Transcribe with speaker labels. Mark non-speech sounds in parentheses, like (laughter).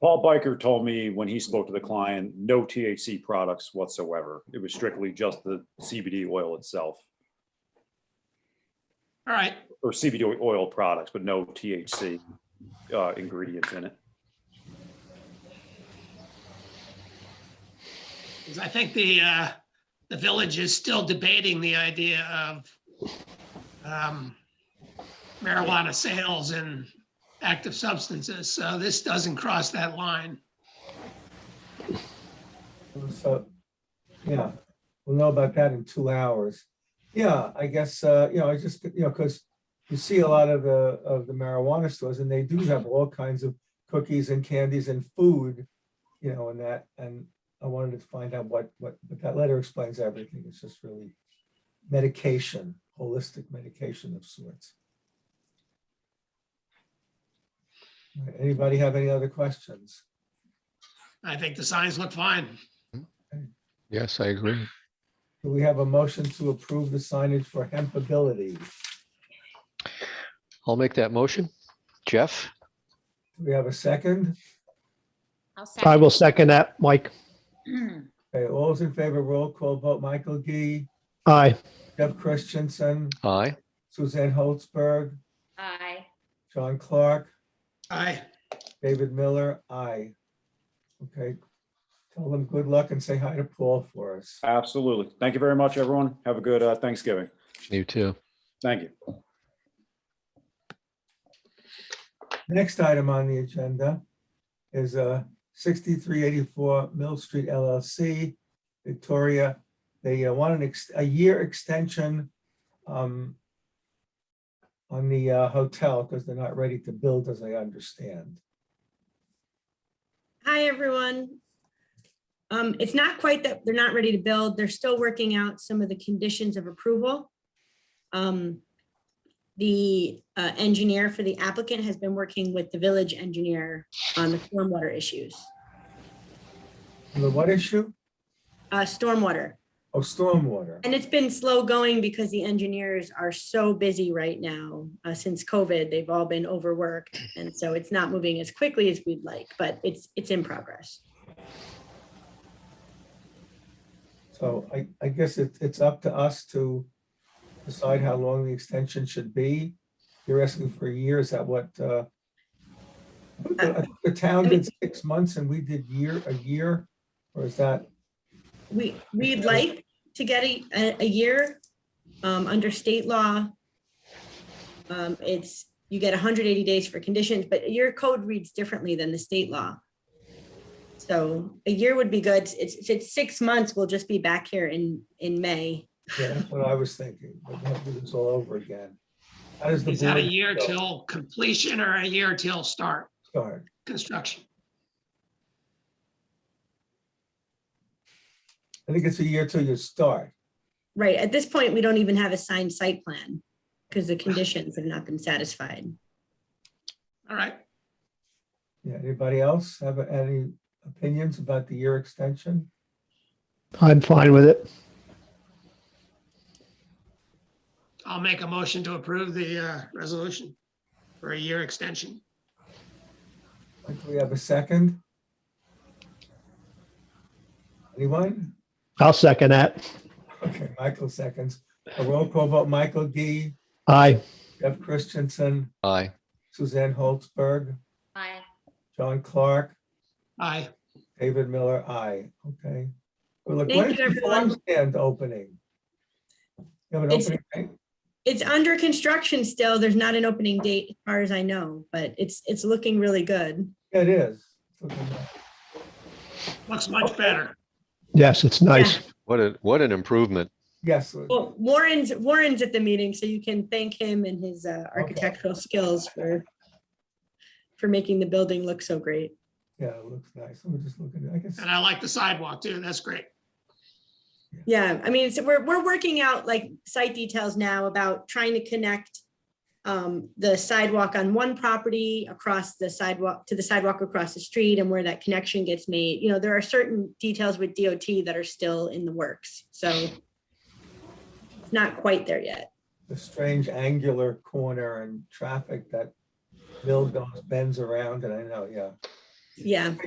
Speaker 1: Paul Biker told me when he spoke to the client, no THC products whatsoever. It was strictly just the CBD oil itself
Speaker 2: All right,
Speaker 1: or CBD oil products, but no THC uh, ingredients in it.
Speaker 2: 'Cause I think the, uh, the village is still debating the idea of um, marijuana sales and active substances, so this doesn't cross that line.
Speaker 3: So, yeah, we'll know about that in two hours. Yeah, I guess, uh, you know, I just, you know, because you see a lot of the, of the marijuana stores and they do have all kinds of cookies and candies and food, you know, and that, and I wanted to find out what, what, but that letter explains everything. It's just really medication, holistic medication of sorts. All right, Anybody have any other questions?
Speaker 2: I think the signs look fine.
Speaker 4: Yes, I agree.
Speaker 3: Do we have a motion to approve the signage for hempability? Do
Speaker 4: I'll make that motion. Jeff,
Speaker 3: we have a second?
Speaker 5: I'll
Speaker 6: I
Speaker 5: second.
Speaker 6: will second that, Mike.
Speaker 3: Okay, all those in favor, roll call vote, Michael Gee,
Speaker 6: Aye.
Speaker 3: Deb Christensen,
Speaker 4: aye.
Speaker 3: Suzanne Holzberg,
Speaker 5: (clears throat) Aye.
Speaker 3: John Clark,
Speaker 2: Aye,
Speaker 3: David Miller, aye. Okay, tell them good luck and say hi to Paul for us.
Speaker 1: Absolutely. Thank you very much, everyone. Have a good uh, Thanksgiving.
Speaker 4: You too.
Speaker 1: Thank you.
Speaker 3: Next item on the agenda is uh, 6384 Mill Street LLC, Victoria. They uh, want an, ex- a year extension um, on the uh, hotel because they're not ready to build, as I understand.
Speaker 7: Hi, everyone. Um, it's not quite that they're not ready to build. They're still working out some of the conditions of approval. Um, the uh, engineer for the applicant has been working with the village engineer on the stormwater issues,
Speaker 3: The what issue?
Speaker 7: uh, stormwater.
Speaker 3: Oh, stormwater.
Speaker 7: And it's been slow going because the engineers are so busy right now. Uh, since COVID, they've all been overworked. And so it's not moving as quickly as we'd like, but it's, it's in progress.
Speaker 3: So I, I guess it, it's up to us to decide how long the extension should be. You're asking for a year, is that what? uh, The the town did six months and we did year, a year, or is that,
Speaker 7: We, we'd like to get a, a- a year, um, under state law. Um, it's, you get hundred eighty days for conditions, but your code reads differently than the state law. So a year would be good. It's, if it's six months, we'll just be back here in, in May.
Speaker 3: yeah, that's what I was thinking, but we have to do this all over again. How does the
Speaker 2: is that a
Speaker 3: board
Speaker 2: year till completion or a year till start
Speaker 3: start?
Speaker 2: construction?
Speaker 3: I think it's a year till you start.
Speaker 7: Right, at this point, we don't even have a signed site plan because the conditions have not been satisfied.
Speaker 2: All right,
Speaker 3: Yeah, anybody else have any opinions about the year extension?
Speaker 6: I'm fine with it.
Speaker 2: I'll make a motion to approve the uh, resolution for a year extension.
Speaker 3: Do we have a second? Anyone?
Speaker 6: I'll second that.
Speaker 3: Okay, Michael seconds. A roll call vote, Michael Gee,
Speaker 6: Aye.
Speaker 3: Jeff Christensen,
Speaker 4: Aye.
Speaker 3: Suzanne Holzberg,
Speaker 5: Aye.
Speaker 3: John Clark,
Speaker 2: Aye,
Speaker 3: David Miller, aye. Okay. Well, look,
Speaker 7: Thank
Speaker 3: when is
Speaker 7: you,
Speaker 3: the farm stand opening? You have an
Speaker 7: It's-
Speaker 3: opening, date?
Speaker 7: It's under construction still. There's not an opening date as far as I know, but it's, it's looking really good.
Speaker 3: Yeah, it is. It's looking nice.
Speaker 2: looks much better.
Speaker 6: Yes, it's nice.
Speaker 4: What a, what an improvement.
Speaker 3: Yes,
Speaker 7: Well, Warren's, Warren's at the meeting, so you can thank him and his uh, architectural skills for, for making the building look so great.
Speaker 3: yeah, it looks nice. Let me just look at it. I guess,
Speaker 2: And I like the sidewalk too, that's great.
Speaker 7: Yeah, I mean, so we're, we're working out like site details now about trying to connect um, the sidewalk on one property across the sidewalk to the sidewalk across the street and where that connection gets made. You know, there are certain details with DOT that are still in the works, so it's not quite there yet.
Speaker 3: the strange angular corner and traffic that Bill goes bends around and I know, yeah.
Speaker 7: yeah.